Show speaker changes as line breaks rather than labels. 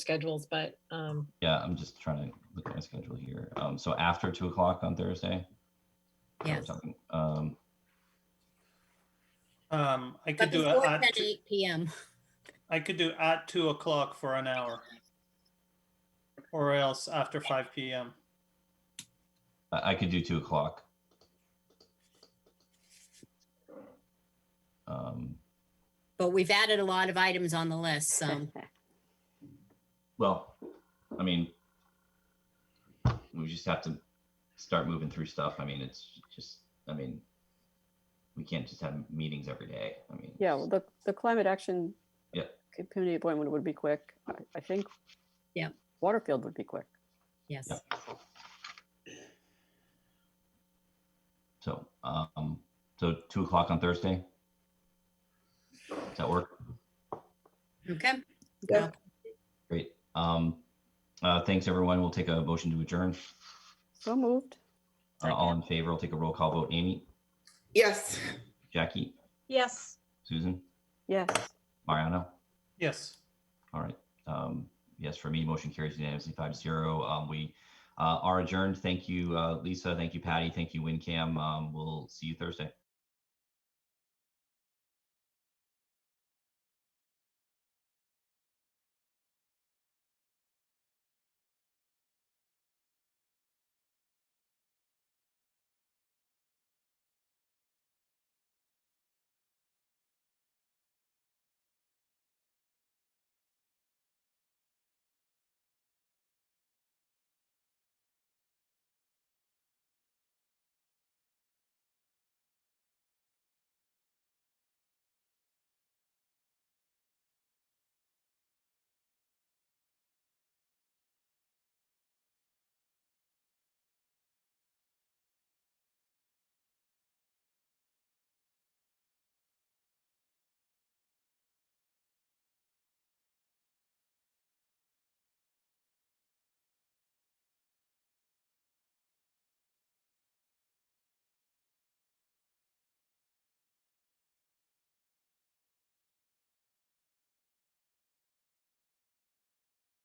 schedules, but, um,
Yeah, I'm just trying to look at my schedule here. Um, so after two o'clock on Thursday? or
Yes.
something, Um,
Um, I
But
could do it
before
at,
ten
two-
eight PM.
I could do at two o'clock for an hour. Or else after five PM.
I, I could do two o'clock. Um,
But we've added a lot of items on the list, so
well, I mean, we just have to start moving through stuff. I mean, it's just, I mean, we can't just have meetings every day. I mean.
Yeah, well, the, the climate action.
Yeah.
co- Community appointment would be quick. I, I think.
Yeah.
Waterfield would be quick.
yes.
Yep. So, um, so two o'clock on Thursday? Does that work?
Okay,
Great. Um, uh, thanks, everyone. We'll take a motion to adjourn.
So moved.
Uh, all in favor, I'll take a roll call vote. Amy,
Yes.
Jackie,
Yes.
Susan,
Yes.
Mariano.
Yes.
All right. Um, yes, for me, motion carries unanimously five zero. Um, we, uh, are adjourned. Thank you, uh, Lisa. Thank you, Patty. Thank you, WinCam. Um, we'll see you Thursday.